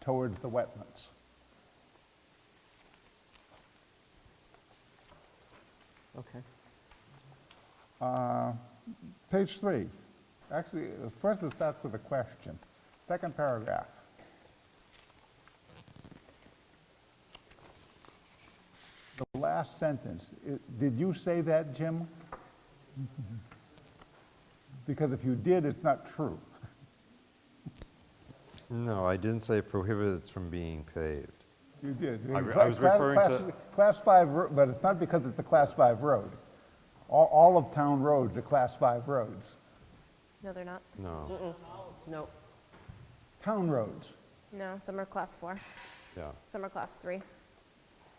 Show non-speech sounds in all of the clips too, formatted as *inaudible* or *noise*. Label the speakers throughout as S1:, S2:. S1: towards the wetlands.
S2: Okay.
S1: Uh, Page three, actually, uh, first it starts with a question, second paragraph. The last sentence, i- did you say that, Jim? Because if you did, it's not true.
S3: No, I didn't say prohibits from being paved.
S1: You did.
S3: I re- I was
S1: Cla-
S3: referring
S1: class-
S3: to-
S1: Class five, ro- but it's not because it's a class five road. All, all of town roads are class five roads.
S4: No, they're not.
S3: No,
S2: No,
S1: Town roads.
S4: No, some are class four,
S3: yeah,
S4: some are class three.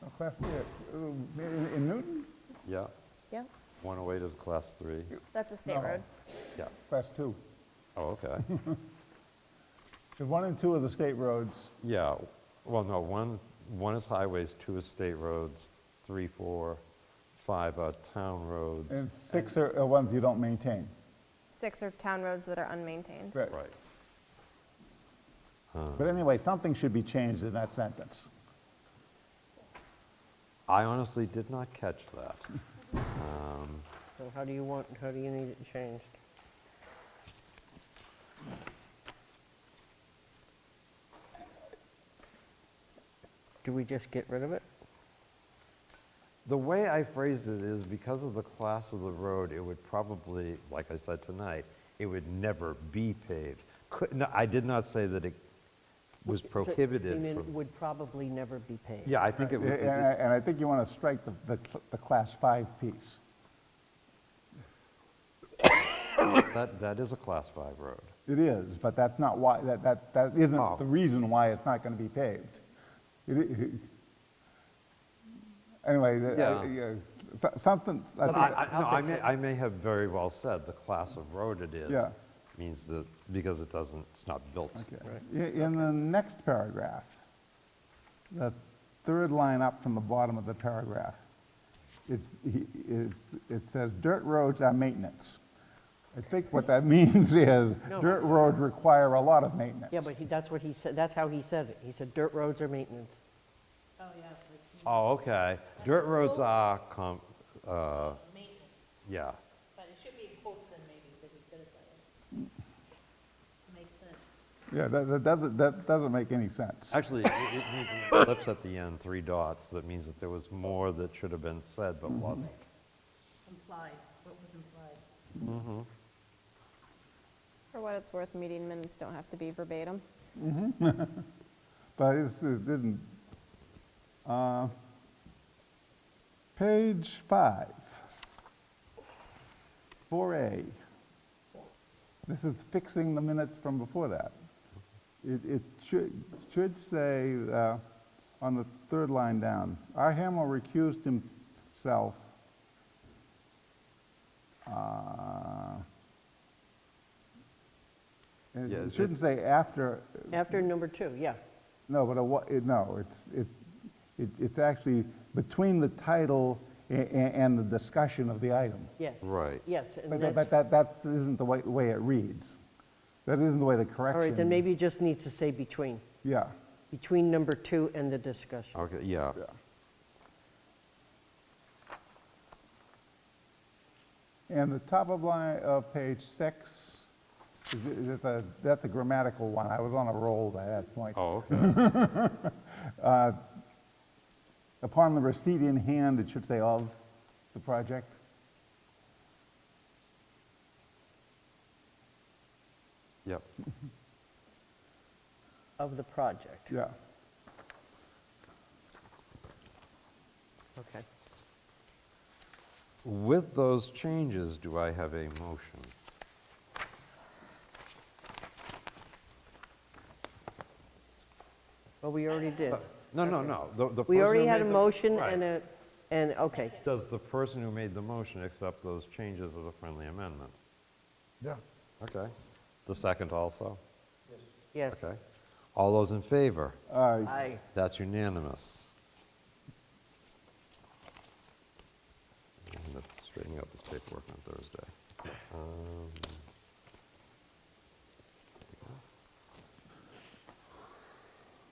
S1: No, Class, yeah, um, in in Newton,
S3: yeah.
S4: Yeah,
S3: 108 is class three.
S4: that's a state
S1: No.
S4: road.
S3: Yeah,
S1: class two.
S3: oh, okay. *laughs*
S1: The one and two of the state roads,
S3: Yeah, well, no, one, one is highways, two is state roads, three, four, five are town
S1: and
S3: roads.
S1: six are are ones you don't maintain.
S4: Six are town roads that are unmaintained.
S1: Right.
S3: Right.
S1: But anyway, something should be changed in that sentence.
S3: I honestly did not catch that. Um,
S2: so how do you want, how do you need it changed? Do we just get rid of it?
S3: The way I phrased it is because of the class of the road, it would probably, like I said tonight, it would never be paved. Could, no, I did not say that it was
S2: So, you
S3: prohibited
S2: mean it
S3: from,
S2: Would probably never be paved.
S3: yeah, I think it
S1: And I
S3: would. it-
S1: and I think you want to strike the, the cl- the class five piece.
S3: That, that is a class five road.
S1: It is, but that's not why, that, that, that
S3: Oh.
S1: isn't the reason why it's not going to be paved. It i- Anyway, the- I-
S3: Yeah.
S1: yeah, so- something, I
S3: But I,
S1: think,
S3: I, no, I may, I may have very well said the class of road it is.
S1: Yeah.
S3: Means that, because it doesn't, it's not built.
S1: okay. I- in the next paragraph, the third line up from the bottom of the paragraph, it's, he- it's, it says, "Dirt roads are maintenance." I think what that *laughs* means is,
S2: No.
S1: dirt roads require a lot of maintenance.
S2: Yeah, but he, that's what he said, that's how he said it. He said dirt roads are maintenance.
S3: Oh, okay. Dirt roads are com, uh,
S5: maintenance,
S3: yeah,
S5: but it should be in quotes then maybe, because he said it that way. Makes sense.
S1: Yeah, that, that, doesn't- that doesn't make any sense.
S3: Actually, it it needs an ellipse at the end, three dots. That means that there was more that should have been said
S1: Mm-hmm.
S3: but wasn't.
S5: Implied, what was implied?
S4: For what it's worth, meeting minutes don't have to be verbatim.
S1: But it's- it didn't. Uh, Page five, 4A. This is fixing the minutes from before that. It it should should say, uh, on the third line down, R. Hamel recused himself. uh, and
S3: Yeah,
S1: It
S3: it-
S1: shouldn't say after,
S2: After number two, yeah.
S1: no, but a, wa- it- no, it's, it, it, it's actually between the title a- a- and the discussion of the item.
S2: Yes.
S3: Right.
S2: Yes. and
S1: But
S2: that's-
S1: that, but that, that's, isn't the way, way it reads. That isn't the way the
S2: All
S1: correction.
S2: right, then maybe it just needs to say between,
S1: Yeah,
S2: between number two and the discussion.
S3: Okay, yeah.
S1: and the top of line of page six, is it, is it the, that's the grammatical one, I was on a roll by that point.
S3: Oh, okay.
S1: Upon the receipt in hand, it should say of the project.
S3: Yep.
S2: Of the project.
S1: Yeah,
S2: Okay.
S3: With those changes, do I have a motion?
S2: Well, we already did.
S3: No, no, no. the- the
S2: We
S3: person
S2: already
S3: who
S2: had a
S3: made the-
S2: motion
S3: Right.
S2: and a, and, okay,
S3: Does the person who made the motion accept those changes as a friendly amendment?
S1: yeah.
S3: Okay. The second also?
S2: yes.
S3: Okay. All those in favor?
S1: All right,
S2: Aye.
S3: That's unanimous. I'm going to straighten out this paperwork on Thursday. Um,